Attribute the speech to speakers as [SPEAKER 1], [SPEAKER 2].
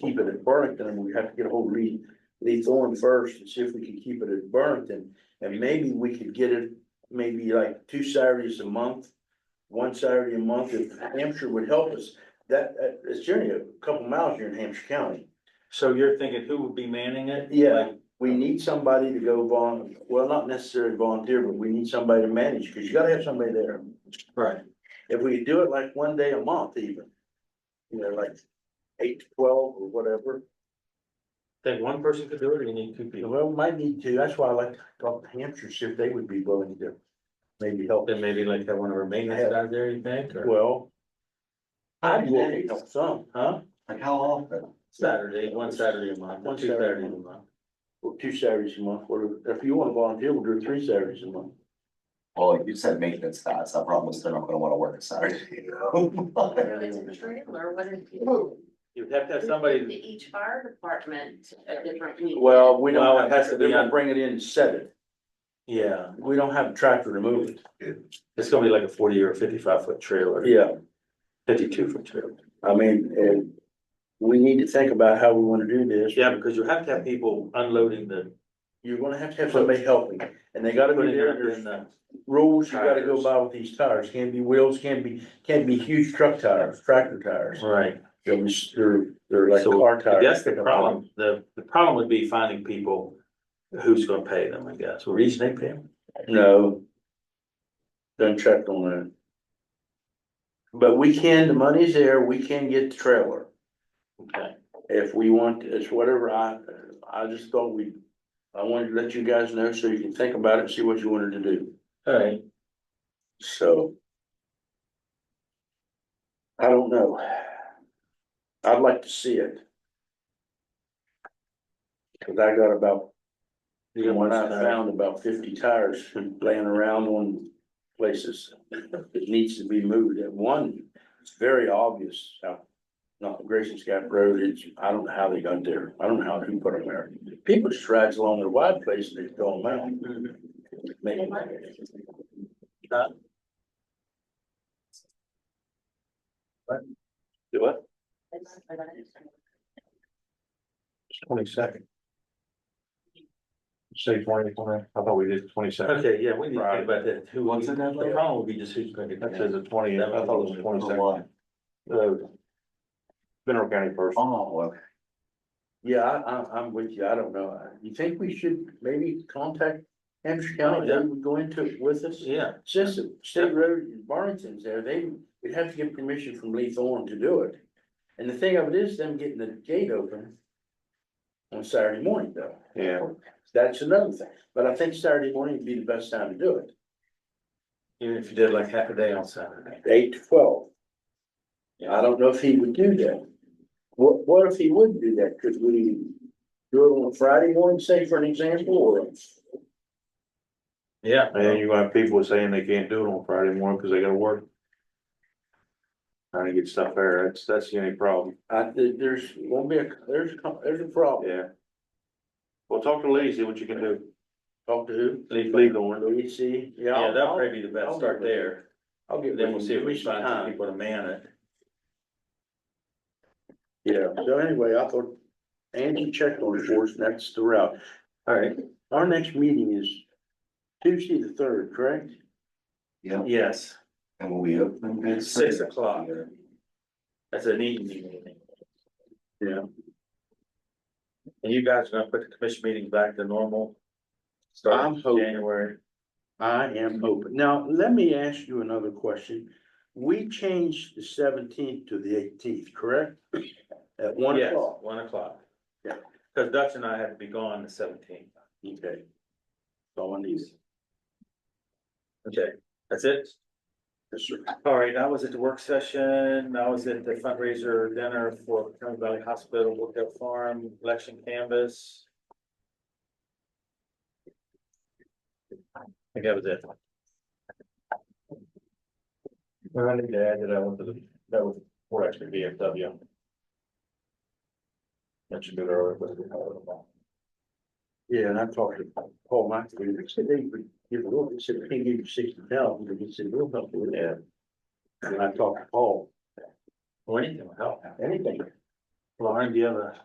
[SPEAKER 1] keep it at Burlington, and we have to get a hold of Lee, Lee Thorne first and see if we can keep it at Burlington. And maybe we could get it, maybe like two Saturdays a month, one Saturday a month, if Hampshire would help us. That, that, it's generally a couple miles here in Hampshire County.
[SPEAKER 2] So you're thinking who would be manning it?
[SPEAKER 1] Yeah.
[SPEAKER 2] Like,
[SPEAKER 1] We need somebody to go volun, well, not necessarily volunteer, but we need somebody to manage, because you gotta have somebody there.
[SPEAKER 2] Right,
[SPEAKER 1] If we do it like one day a month even, you know, like eight to twelve or whatever,
[SPEAKER 2] think one person could do it or you need two people?
[SPEAKER 1] well, we might need to, that's why I like to talk to Hampshire, see if they would be willing to maybe help.
[SPEAKER 2] Then maybe like have one of our maintenance guys there, you think, or
[SPEAKER 1] Well. I'd be willing to help some, huh?
[SPEAKER 3] Like how often?
[SPEAKER 2] Saturday, one Saturday a month,
[SPEAKER 1] One
[SPEAKER 2] or two
[SPEAKER 1] Saturday a
[SPEAKER 2] Saturdays a month.
[SPEAKER 1] Or two Saturdays a month, or if you wanna volunteer, we'll do it three Saturdays a month.
[SPEAKER 3] Well, like you said maintenance guys, I promise they're not gonna wanna work a Saturday, you know?
[SPEAKER 4] It's a trailer, what if you?
[SPEAKER 3] Well,
[SPEAKER 2] You'd have to have somebody,
[SPEAKER 4] To each fire department, a different week.
[SPEAKER 1] Well, we
[SPEAKER 2] Well,
[SPEAKER 1] don't,
[SPEAKER 2] it has to
[SPEAKER 1] have- they're
[SPEAKER 2] be
[SPEAKER 1] gonna
[SPEAKER 2] on-
[SPEAKER 1] bring it in and set it.
[SPEAKER 2] yeah,
[SPEAKER 1] We don't have a tractor to move it.
[SPEAKER 2] it's gonna be like a forty or fifty-five foot trailer.
[SPEAKER 1] Yeah.
[SPEAKER 2] Fifty-two foot trailer.
[SPEAKER 1] I mean, and we need to think about how we wanna do this.
[SPEAKER 2] Yeah, because you have to have people unloading the.
[SPEAKER 1] You're gonna have to have somebody helping, and they gotta be
[SPEAKER 2] putting
[SPEAKER 1] there,
[SPEAKER 2] it
[SPEAKER 1] there's
[SPEAKER 2] in the-
[SPEAKER 1] rules you gotta go by with these tires, can't be wheels, can't be, can't be huge truck tires, tractor tires.
[SPEAKER 2] Right,
[SPEAKER 1] They're, mis- they're, they're like
[SPEAKER 2] So,
[SPEAKER 1] car
[SPEAKER 2] I
[SPEAKER 1] tires.
[SPEAKER 2] guess the problem, the, the problem would be finding people who's gonna pay them, I guess, or each they pay them.
[SPEAKER 1] No. Done checked on that. But we can, the money's there, we can get the trailer.
[SPEAKER 2] Okay,
[SPEAKER 1] if we want, it's whatever, I, I just thought we, I wanted to let you guys know so you can think about it, and see what you wanted to do,
[SPEAKER 2] all right.
[SPEAKER 1] so. I don't know. I'd like to see it. Cause I got about,
[SPEAKER 2] You got one
[SPEAKER 1] when I
[SPEAKER 2] Saturday.
[SPEAKER 1] found about fifty tires laying around on places. It needs to be moved at one, it's very obvious, out not Grayson's Gap Road, it's, I don't know how they got there, I don't know how who put them there. People just drags along their wide place and they throw them out. Make them out. Do what?
[SPEAKER 5] Twenty second. Say twenty, twenty, I thought we did twenty second.
[SPEAKER 2] Okay, yeah, we need to
[SPEAKER 5] Right.
[SPEAKER 2] think about that. Who wants it that
[SPEAKER 5] Yeah.
[SPEAKER 2] Wrong would be just who's gonna get
[SPEAKER 5] That says
[SPEAKER 2] that.
[SPEAKER 5] the twentieth, I thought it was twenty
[SPEAKER 3] why?
[SPEAKER 5] second. Mineral County first.
[SPEAKER 3] Oh, okay.
[SPEAKER 1] Yeah, I, I, I'm with you, I don't know, Uh, you think we should maybe contact Hampshire County,
[SPEAKER 2] Yeah.
[SPEAKER 1] they would go into it with us?
[SPEAKER 2] Yeah,
[SPEAKER 1] Oh, Since the state road, Barrington's there, they, we'd have to get permission from Lee Thorne to do it. And the thing of it is them getting the gate open on Saturday morning though.
[SPEAKER 5] Yeah.
[SPEAKER 1] That's another thing, but I think Saturday morning would be the best time to do it,
[SPEAKER 2] even if you did like half a day on Saturday.
[SPEAKER 1] eight to twelve. I don't know if he would do that. What, what if he wouldn't do that? Could we do it on a Friday morning, say for an example, or?
[SPEAKER 2] Yeah.
[SPEAKER 5] And then you got people saying they can't do it on Friday morning because they gotta work. Trying to get stuff there, that's, that's the only problem,
[SPEAKER 1] I, there- there's, won't be a, there's, a- there's a problem.
[SPEAKER 5] yeah. Well, talk to Lee, see what you can do,
[SPEAKER 1] Talk to who?
[SPEAKER 2] Leave-
[SPEAKER 5] Lee Thorne,
[SPEAKER 1] Louis C.
[SPEAKER 2] Yeah,
[SPEAKER 1] I'll-
[SPEAKER 2] that'll
[SPEAKER 1] I'll-
[SPEAKER 2] probably be the best
[SPEAKER 1] I'll
[SPEAKER 2] start
[SPEAKER 1] give it-
[SPEAKER 2] there.
[SPEAKER 1] I'll get.
[SPEAKER 2] Then we'll see if we can find some
[SPEAKER 1] time.
[SPEAKER 2] people to man it.
[SPEAKER 1] Yeah, so anyway, I thought Angie checked on it for us, and that's the route.
[SPEAKER 2] All right.
[SPEAKER 1] Our next meeting is Tuesday the third, correct?
[SPEAKER 3] Yeah,
[SPEAKER 2] Yes,
[SPEAKER 3] and when we open. it's-
[SPEAKER 2] Six o'clock. that's an evening meeting.
[SPEAKER 1] Yeah.
[SPEAKER 2] And you guys are gonna put the commission meetings back to normal?
[SPEAKER 1] I'm
[SPEAKER 2] Starting
[SPEAKER 1] hoping.
[SPEAKER 2] January.
[SPEAKER 1] I am open. Now, let me ask you another question. We changed the seventeenth to the eighteenth, correct? At one
[SPEAKER 2] Yes,
[SPEAKER 1] o'clock.
[SPEAKER 2] One o'clock.
[SPEAKER 1] Yeah.
[SPEAKER 2] Cause Dutch and I have to be gone the seventeenth.
[SPEAKER 1] Okay. So I need,
[SPEAKER 2] Okay, that's it?
[SPEAKER 1] yes, sir.
[SPEAKER 2] All right, I was at the work session, I was at the fundraiser dinner for County Valley Hospital, Lookout Farm, election canvas. I think that was it. Well, I need to add that I went to the, that was four extra VFW. That should be there.
[SPEAKER 1] Yeah, and I talked to Paul McAfee, they said they would give a little, they said, they can give you sixty thousand, but he said, we'll help you with that. And I talked to Paul,
[SPEAKER 2] Or anything will help.
[SPEAKER 1] anything.
[SPEAKER 5] Lauren, do you have a